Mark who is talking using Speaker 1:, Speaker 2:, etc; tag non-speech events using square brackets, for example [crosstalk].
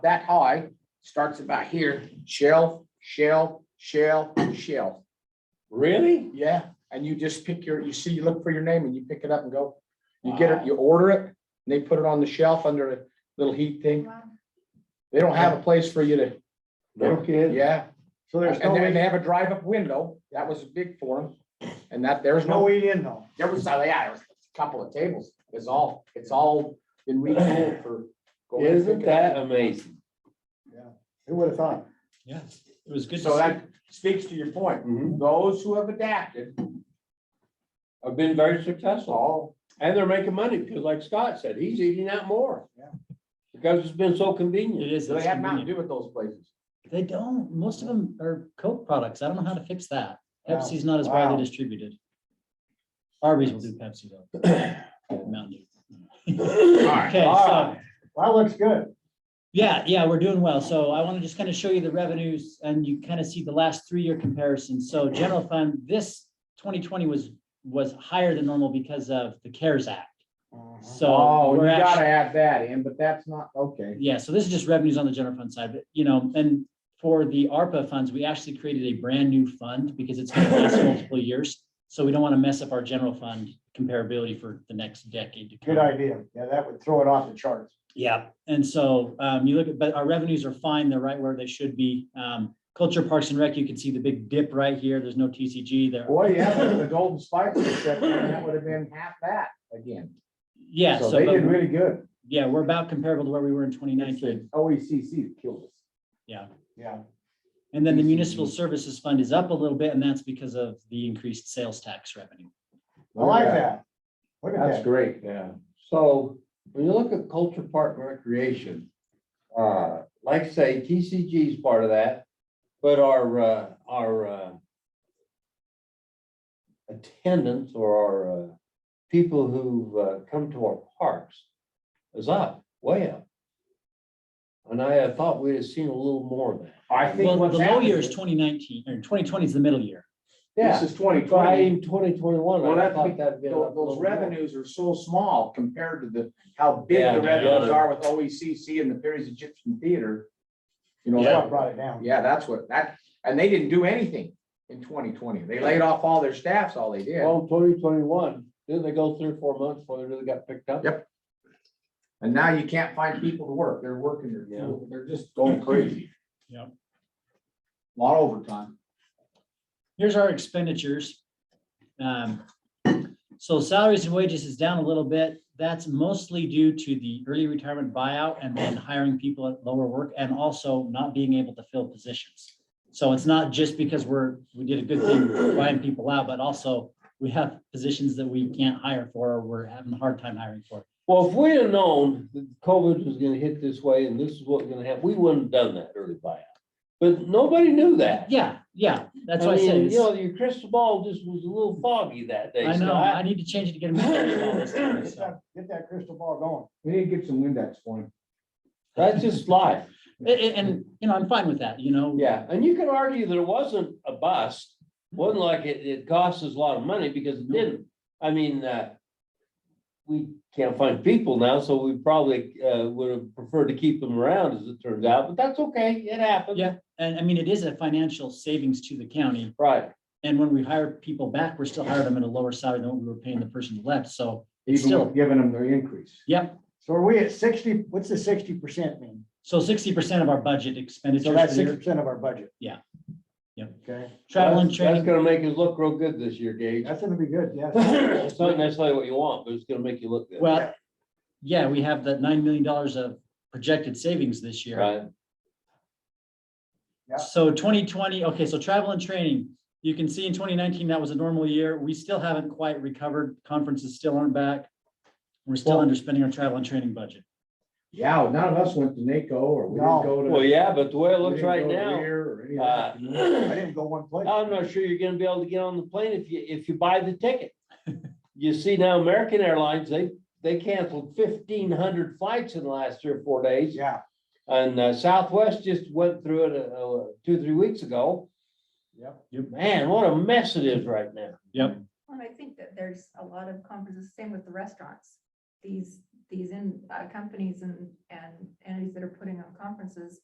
Speaker 1: that high, starts about here, shelf, shelf, shelf, shelf.
Speaker 2: Really?
Speaker 1: Yeah, and you just pick your, you see, you look for your name and you pick it up and go. You get it, you order it, and they put it on the shelf under a little heat thing. They don't have a place for you to,
Speaker 2: No kidding?
Speaker 1: yeah,
Speaker 3: So there's
Speaker 1: and
Speaker 3: no
Speaker 1: they, and they
Speaker 3: way,
Speaker 1: have a drive-up window. That was big for them. And that, there's
Speaker 3: there's no
Speaker 1: no,
Speaker 3: way in though.
Speaker 1: there was, uh, yeah, there was a couple of tables. It's all, it's all been retooled for. going to
Speaker 2: Isn't
Speaker 1: pick it up.
Speaker 2: that amazing?
Speaker 3: Who would have thought?
Speaker 4: Yeah, it was good. to
Speaker 1: So
Speaker 4: see.
Speaker 1: that speaks to your point.
Speaker 2: Mhm.
Speaker 1: Those who have adapted,
Speaker 2: I've been very successful
Speaker 1: all,
Speaker 2: and they're making money because like Scott said, he's eating out more.
Speaker 3: Yeah.
Speaker 2: Because it's been so
Speaker 4: It
Speaker 2: convenient.
Speaker 4: is.
Speaker 1: they
Speaker 4: it's
Speaker 1: have nothing
Speaker 4: convenient.
Speaker 1: to do with those places.
Speaker 4: They don't, most of them are Coke products. I don't know how to fix that.
Speaker 3: Wow.
Speaker 4: Pepsi's not as
Speaker 3: Wow.
Speaker 4: widely distributed. Arby's will do Pepsi though. Mountain
Speaker 2: [laughs]
Speaker 4: Dew.
Speaker 2: All right.
Speaker 4: Okay, so,
Speaker 3: Well, looks good.
Speaker 4: yeah, yeah, we're doing well. So I want to just kind of show you the revenues and you kind of see the last three-year comparison. So general fund, this twenty twenty was, was higher than normal because of the CARES Act. So
Speaker 1: Oh, you
Speaker 4: we're actually.
Speaker 1: gotta add that in, but that's not, okay.
Speaker 4: Yeah, so this is just revenues on the general fund side, but you know, and for the ARPA funds, we actually created a brand new fund because it's
Speaker 1: [laughs]
Speaker 4: gonna last multiple years. So we don't want to mess up our general fund comparability for the next decade. to come.
Speaker 3: Good idea. Yeah, that would throw it off the charts.
Speaker 4: Yeah, and so um, you look at, but our revenues are fine. They're right where they should be. Um, Culture Parks and Rec, you can see the big dip right here. There's no TCG there.
Speaker 1: Boy, yeah, the golden spikes, except that would have been half that again.
Speaker 4: Yeah,
Speaker 1: So
Speaker 4: so,
Speaker 1: they
Speaker 4: but-
Speaker 1: did really good.
Speaker 4: yeah, we're about comparable to where we were in twenty
Speaker 1: It's
Speaker 4: nineteen.
Speaker 1: the OECC that killed us.
Speaker 4: Yeah.
Speaker 3: Yeah.
Speaker 4: And then the
Speaker 1: PCE.
Speaker 4: municipal services fund is up a little bit, and that's because of the increased sales tax revenue.
Speaker 3: I like that. Look at
Speaker 1: That's
Speaker 3: that.
Speaker 1: great.
Speaker 2: Yeah, so when you look at Culture Park and Recreation, uh, like say TCG is part of that, but our, uh, our, uh, attendance or our, uh, people who've, uh, come to our parks is up, way up. And I had thought we'd have seen a little more of that.
Speaker 1: I
Speaker 4: Well,
Speaker 1: think
Speaker 4: the
Speaker 1: what's
Speaker 4: low year is
Speaker 1: happening,
Speaker 4: twenty nineteen, or twenty twenty is the middle year.
Speaker 1: this is twenty
Speaker 2: So I
Speaker 1: twenty,
Speaker 2: in twenty twenty-one,
Speaker 1: Well,
Speaker 2: I
Speaker 1: that's
Speaker 2: thought
Speaker 1: because
Speaker 2: that'd been. up a
Speaker 1: those
Speaker 2: little more.
Speaker 1: revenues are so small compared to the, how big
Speaker 2: Yeah,
Speaker 1: the revenues
Speaker 2: yeah.
Speaker 1: are with OECC and the Perry's Egyptian Theater. You
Speaker 3: That's
Speaker 1: know,
Speaker 3: what brought it down.
Speaker 1: yeah, that's what, that, and they didn't do anything in twenty twenty. They laid off all their staffs, all they did.
Speaker 2: Well, twenty twenty-one, didn't they go three or four months before they really got picked up?
Speaker 1: Yep. And now you can't find people to work. They're working, they're,
Speaker 2: Yeah.
Speaker 1: they're just going crazy.
Speaker 4: Yep.
Speaker 1: Lot of overtime.
Speaker 4: Here's our expenditures. Um, So salaries and wages is down a little bit. That's mostly due to the early retirement buyout and then hiring people at lower work and also not being able to fill positions. So it's not just because we're, we did a good thing buying people out, but also we have positions that we can't hire for, or we're having a hard time hiring for.
Speaker 2: Well, if we had known that COVID was gonna hit this way and this is what was gonna happen, we wouldn't have done that early buyout. But nobody knew that.
Speaker 4: Yeah, yeah, that's
Speaker 2: I
Speaker 4: why I said.
Speaker 2: mean,
Speaker 4: it's-
Speaker 2: You know, your crystal ball just was a little foggy that day.
Speaker 4: I know,
Speaker 2: Scott.
Speaker 4: I need to change it to get him.
Speaker 3: Get that- get that crystal ball going.
Speaker 1: We need to get some Windex for him.
Speaker 2: That's just life.
Speaker 4: And, and, you know, I'm fine with that, you know?
Speaker 2: Yeah, and you could argue that it wasn't a bust, wasn't like it, it cost us a lot of money because it didn't. I mean, uh, we can't find people now, so we probably, uh, would have preferred to keep them around as it turns out, but that's okay, it happened.
Speaker 4: Yeah. And I mean, it is a financial savings to the county.
Speaker 2: Right,
Speaker 4: And when we hire people back, we're still hiring them at a lower salary than what we were paying the person who left. So,
Speaker 1: Even
Speaker 4: Still.
Speaker 1: with giving them their increase.
Speaker 4: yep.
Speaker 3: So are we at sixty, what's the sixty percent mean?
Speaker 4: So sixty percent of our budget expenditure.
Speaker 3: So that's sixty percent of our budget.
Speaker 4: Yeah. Yep.
Speaker 3: Okay,
Speaker 4: Travel and
Speaker 2: That's- That's
Speaker 4: training.
Speaker 2: gonna make us look real good this year, Gage.
Speaker 3: that's gonna be good,
Speaker 2: [coughs]
Speaker 3: yeah.
Speaker 2: [laughs] It's not necessarily what you want, but it's gonna make you look good.
Speaker 4: Well, yeah, we have that nine million dollars of projected savings this year.
Speaker 2: Right,
Speaker 3: Yeah.
Speaker 4: So twenty twenty, okay, so travel and training, you can see in twenty nineteen, that was a normal year. We still haven't quite recovered. Conferences still aren't back. We're still
Speaker 1: Well-
Speaker 4: underspending our travel and training budget.
Speaker 1: Yeah, none of us went to NACO or we didn't
Speaker 3: No.
Speaker 1: go to.
Speaker 2: well, yeah, but the way it
Speaker 1: we
Speaker 2: looks
Speaker 1: didn't
Speaker 2: right
Speaker 1: go to
Speaker 2: now,
Speaker 1: Lear or any of
Speaker 2: uh,
Speaker 1: that, you know?
Speaker 3: I didn't go one place.
Speaker 2: I'm not sure you're gonna be able to get on the plane if you, if you buy the ticket. You see now American Airlines, they, they canceled fifteen hundred flights in the last three or four days.
Speaker 3: Yeah,
Speaker 2: And uh, Southwest just went through it, uh, uh, two, three weeks ago.
Speaker 3: Yep.
Speaker 2: Man, what a mess it is right now.
Speaker 4: Yep.
Speaker 5: And I think that there's a lot of conferences, same with the restaurants. These, these in, uh, companies and, and entities that are putting on conferences